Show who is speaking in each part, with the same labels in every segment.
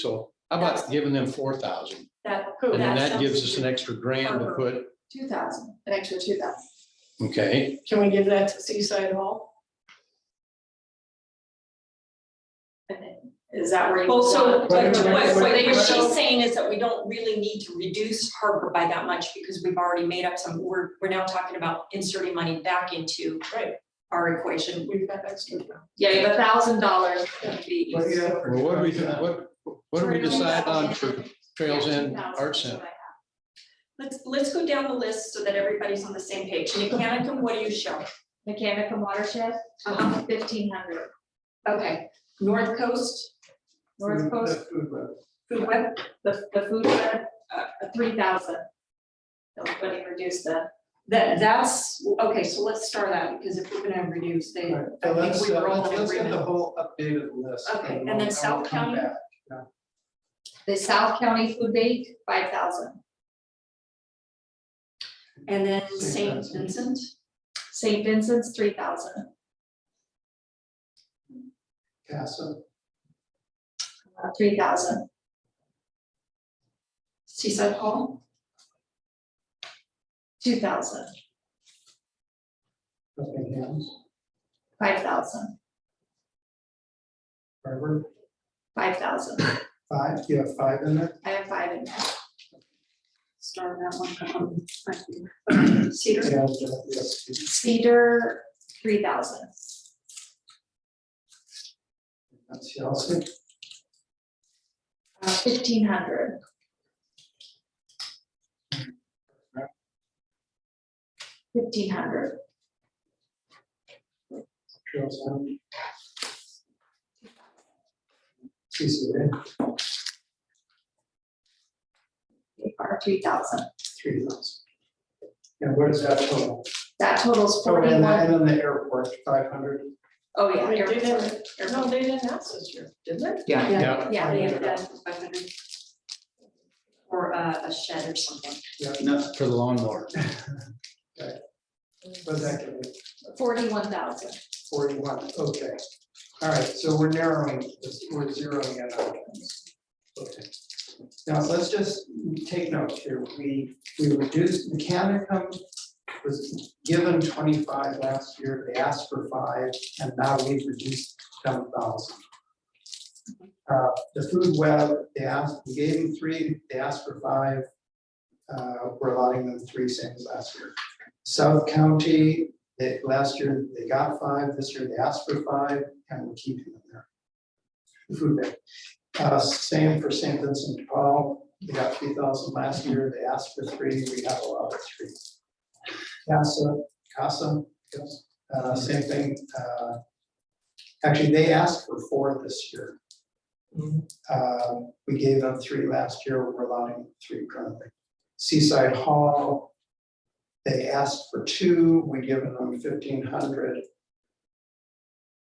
Speaker 1: So how about giving them four thousand?
Speaker 2: That.
Speaker 1: And then that gives us an extra grand to put,
Speaker 2: Two thousand, an extra two thousand.
Speaker 1: okay,
Speaker 3: Can we give that to Seaside Hall?
Speaker 2: Is that where you?
Speaker 4: Well, so
Speaker 2: want
Speaker 4: what,
Speaker 2: it?
Speaker 3: Right,
Speaker 4: what- what
Speaker 3: right, right.
Speaker 4: she's saying is that we don't really need to reduce Harbor by that much because we've already made up some, we're, we're now talking about inserting money back into
Speaker 3: Right.
Speaker 4: our equation.
Speaker 3: We've got extra.
Speaker 2: Yeah, the thousand dollars would be.
Speaker 1: well, what do we, what, what do we decide on for Trails End
Speaker 2: Yeah, 2,000
Speaker 1: Art
Speaker 2: is what
Speaker 1: Center?
Speaker 2: I have.
Speaker 4: Let's, let's go down the list so that everybody's on the same page. Mechanicum, what do you show?
Speaker 2: Mechanic and watershed,
Speaker 4: Uh-huh.
Speaker 2: fifteen hundred.
Speaker 4: Okay, North Coast,
Speaker 1: Mm-hmm.
Speaker 2: North Coast,
Speaker 4: Food Web,
Speaker 2: the, the food shed, uh, three thousand. That's when you reduce the,
Speaker 4: that, that's, okay, so let's start out because if we're gonna reduce, they,
Speaker 5: Alright,
Speaker 4: I
Speaker 5: So
Speaker 4: think
Speaker 5: let's,
Speaker 4: we were
Speaker 5: uh,
Speaker 4: all
Speaker 5: let's,
Speaker 4: in
Speaker 5: let's get the
Speaker 4: agreement.
Speaker 5: whole updated list.
Speaker 4: Okay, and
Speaker 5: we'll-
Speaker 4: then
Speaker 5: we'll
Speaker 4: South
Speaker 5: come
Speaker 4: County?
Speaker 5: back.
Speaker 2: the South County food bank, five thousand.
Speaker 4: and then St.
Speaker 5: Saint
Speaker 4: Vincent.
Speaker 2: St. Vincent's, three thousand.
Speaker 5: Casa,
Speaker 2: Uh, Three thousand.
Speaker 4: Seaside Hall,
Speaker 2: Two thousand.
Speaker 5: Buckingham,
Speaker 2: Five thousand.
Speaker 5: Harvard,
Speaker 2: Five thousand.
Speaker 5: five, you have five in there?
Speaker 2: I have five in there.
Speaker 4: start that one. um, Cedar.
Speaker 5: Yeah, yeah, yes.
Speaker 2: Cedar, three thousand.
Speaker 5: That's Chelsea,
Speaker 2: Uh, Fifteen hundred. Fifteen hundred.
Speaker 5: Trails End. CCA,
Speaker 2: Or three thousand.
Speaker 5: three thousand. And where does that total?
Speaker 2: That totals
Speaker 5: Oh, and then,
Speaker 2: forty-one.
Speaker 5: and then the airport, five hundred.
Speaker 2: Oh, yeah.
Speaker 3: Wait, they
Speaker 2: airport,
Speaker 3: didn't-
Speaker 2: airport.
Speaker 3: No, they didn't ask us here, did they?
Speaker 4: Yeah.
Speaker 1: Yeah,
Speaker 2: Yeah,
Speaker 4: Yeah,
Speaker 2: yeah,
Speaker 4: that's five hundred. Or a, a shed or something.
Speaker 1: not for the lawnmower.
Speaker 5: Was that gonna be
Speaker 2: forty-one thousand.
Speaker 5: forty-one? Okay. All right, so we're narrowing, this- we're zeroing it out. Okay. Now, let's just take note here, we, we reduced, Mechanicum was given twenty-five last year, they asked for five, and now we've reduced ten thousand. Uh, the food web, they asked, we gave them three, they asked for five, uh, we're allowing them three cents last year. South County, they, last year, they got five, this year they asked for five, and we're keeping them there. The Food bank, uh, same for St. Vincent de Paul, they got three thousand last year, they asked for three, we have allowed three. Casa, Casa, yes, uh, same thing, uh, actually, they asked for four this year. Uh, we gave them three last year, we're allowing three currently. Seaside Hall, they asked for two, we given them fifteen hundred.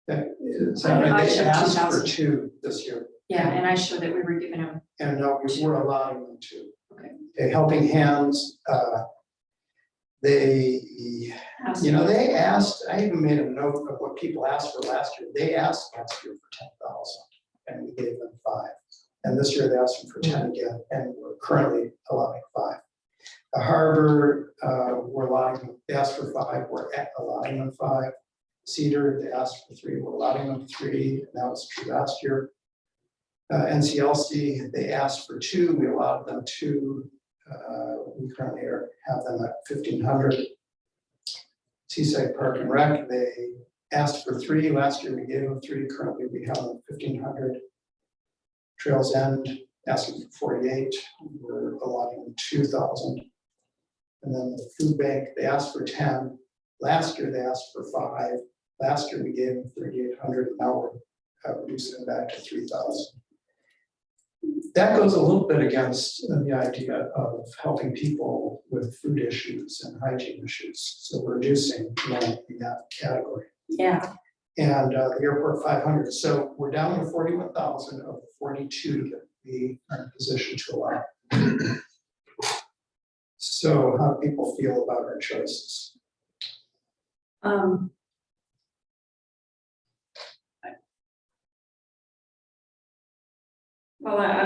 Speaker 5: That is,
Speaker 4: I- I
Speaker 5: they
Speaker 4: should
Speaker 5: asked for
Speaker 4: 2,000.
Speaker 5: two this year.
Speaker 4: Yeah, and I showed that we were giving them,
Speaker 5: And no, we were allowing them to.
Speaker 4: Okay.
Speaker 5: Okay, Helping Hands, uh, they, you know, they asked, I even made a note of what people asked for last year. They asked last year for ten thousand and we gave them five. And this year they asked them for ten again and we're currently allowing five. The harbor, uh, we're allowing, they asked for five, we're at- allowing them five. Cedar, they asked for three, we're allowing them three, and that was true last year. Uh, NCLC, they asked for two, we allowed them two. Uh, we currently are, have them at fifteen hundred. Seaside Park and Rec, they asked for three, last year we gave them three, currently we have them fifteen hundred. Trails End, asking for forty-eight, we're allotting them two thousand. And then the food bank, they asked for ten, last year they asked for five, last year we gave them thirty-eight hundred, now we're uh, reducing it back to three thousand. That goes a little bit against uh, the idea of helping people with food issues and hygiene issues, so we're reducing money in that category.
Speaker 4: yeah,
Speaker 5: And uh, the airport five hundred, so we're down to forty-one thousand of forty-two that we are in position to allow. So how do people feel about our choices?
Speaker 4: um. I- Well, I-